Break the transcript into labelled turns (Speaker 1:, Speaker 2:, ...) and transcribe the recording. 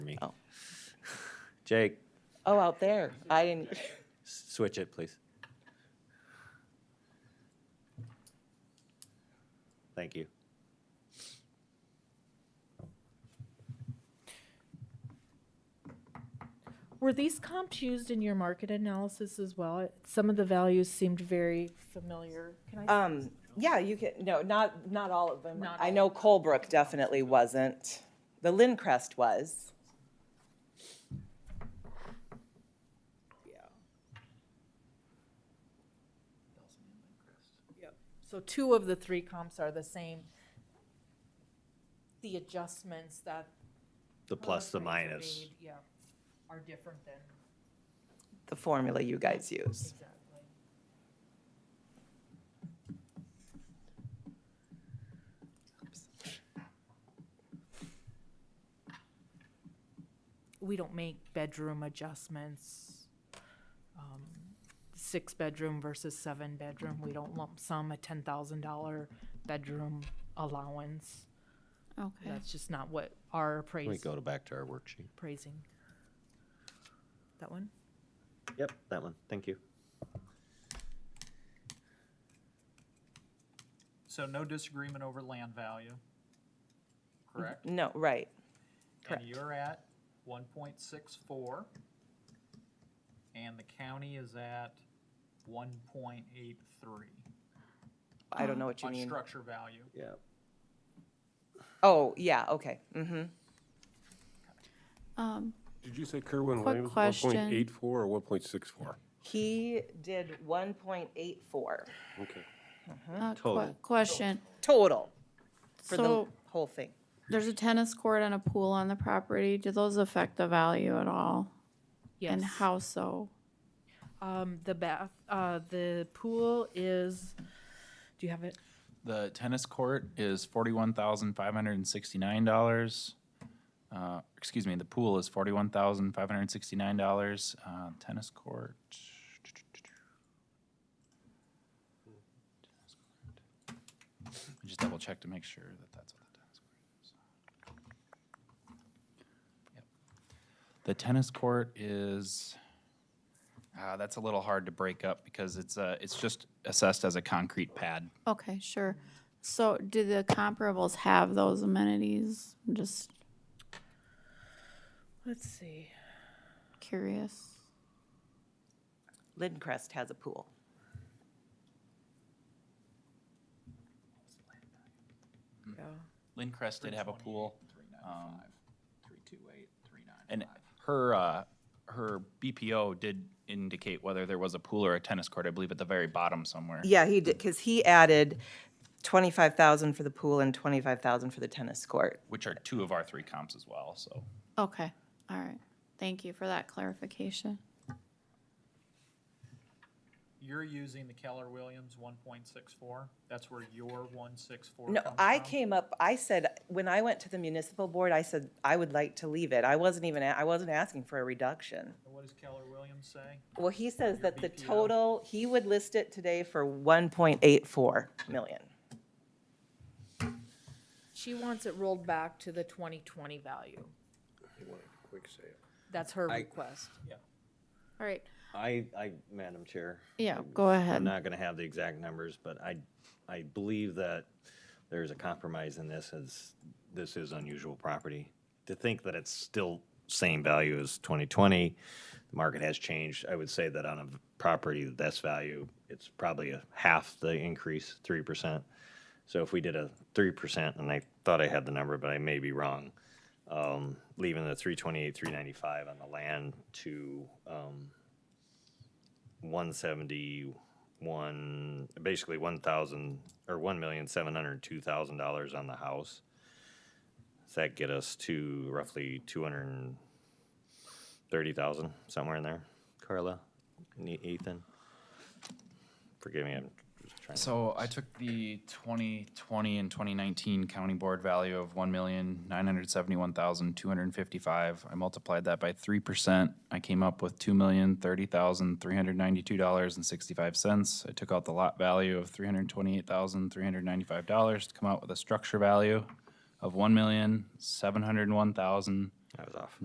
Speaker 1: me.
Speaker 2: Oh.
Speaker 1: Jake,
Speaker 2: Oh, out there. I didn't,
Speaker 1: s- switch it, please. Thank you.
Speaker 3: Were these comps used in your market analysis as well? Some of the values seemed very familiar. Can I?
Speaker 2: um, yeah, you can, no, not, not all of them.
Speaker 3: Not
Speaker 2: I
Speaker 3: all.
Speaker 2: know Colebrook definitely wasn't. The Lindcrest was.
Speaker 3: So two of the three comps are the same. The adjustments that.
Speaker 1: The plus, the
Speaker 3: those rates are
Speaker 1: minus.
Speaker 3: made, Yeah, are different than,
Speaker 2: the formula you guys use.
Speaker 3: exactly. We don't make bedroom adjustments. um, Six-bedroom versus seven-bedroom, we don't lump sum a ten thousand dollar bedroom allowance.
Speaker 4: Okay.
Speaker 3: That's just not what our appraise,
Speaker 1: We go to back to our worksheet.
Speaker 3: appraising. That one?
Speaker 1: Yep, that one. Thank you.
Speaker 5: So no disagreement over land value, correct?
Speaker 2: No, right. correct.
Speaker 5: And you're at one point six four, and the county is at one point eight three
Speaker 2: I don't know what you
Speaker 5: on
Speaker 2: mean.
Speaker 5: structure value.
Speaker 1: Yeah.
Speaker 2: Oh, yeah, okay. Mm-hmm.
Speaker 4: Um,
Speaker 6: Did you say Kerwin
Speaker 4: Quick
Speaker 6: Williams,
Speaker 4: question.
Speaker 6: 1.84 or 1.64?
Speaker 2: He did one point eight four
Speaker 6: Okay.
Speaker 4: uh, que-
Speaker 1: Total.
Speaker 4: question.
Speaker 2: total for the
Speaker 4: So
Speaker 2: whole thing.
Speaker 4: there's a tennis court and a pool on the property. Do those affect the value at all?
Speaker 3: Yes.
Speaker 4: And how so?
Speaker 3: Um, the bath, uh, the pool is, do you have it?
Speaker 7: The tennis court is forty-one thousand five hundred and sixty-nine dollars. Uh, excuse me, the pool is forty-one thousand five hundred and sixty-nine dollars. Uh, tennis court. I just double check to make sure that that's what the tennis court is. Yep. The tennis court is, uh, that's a little hard to break up because it's, uh, it's just assessed as a concrete pad.
Speaker 4: Okay, sure. So do the comparables have those amenities? I'm just
Speaker 3: Let's see.
Speaker 4: curious.
Speaker 2: Lindcrest has a pool.
Speaker 3: Yeah.
Speaker 7: Lincrest did have a pool. um,
Speaker 5: Three two eight, three nine.
Speaker 7: And her, uh, her BPO did indicate whether there was a pool or a tennis court, I believe at the very bottom somewhere.
Speaker 2: Yeah, he did, because he added twenty-five thousand for the pool and twenty-five thousand for the tennis court.
Speaker 7: Which are two of our three comps as well, so.
Speaker 4: Okay, all right. Thank you for that clarification.
Speaker 5: You're using the Keller Williams one point six four, that's where your one six four
Speaker 2: No,
Speaker 5: comes from?
Speaker 2: I came up, I said, when I went to the municipal board, I said, I would like to leave it. I wasn't even, a- I wasn't asking for a reduction.
Speaker 5: And What does Keller Williams say?
Speaker 2: Well, he says
Speaker 5: Your
Speaker 2: that the
Speaker 5: BPO.
Speaker 2: total, he would list it today for one point eight four million.
Speaker 3: She wants it rolled back to the twenty twenty value. That's her request.
Speaker 4: All right,
Speaker 1: I, I, Madam Chair.
Speaker 4: yeah, go
Speaker 1: I'm
Speaker 4: ahead.
Speaker 1: not gonna have the exact numbers, but I, I believe that there's a compromise in this as this is unusual property. To think that it's still same value as 2020, the market has changed. I would say that on a property that's value, it's probably a half the increase, 3%. So if we did a 3%, and I thought I had the number, but I may be wrong, um, leaving the 328, 395 on the land to, um, 171, basically 1,000, or $1,702,000 on the house. Does that get us to roughly 230,000, somewhere in there? Carla, Ne- Ethan? Forgive me, I'm just trying to.
Speaker 7: So I took the 2020 and 2019 county board value of 1,971,255. I multiplied that by 3%. I came up with $2,030,392.65. I took out the lot value of $328,395 to come out with a structure value of $1,701,000.
Speaker 1: I was off.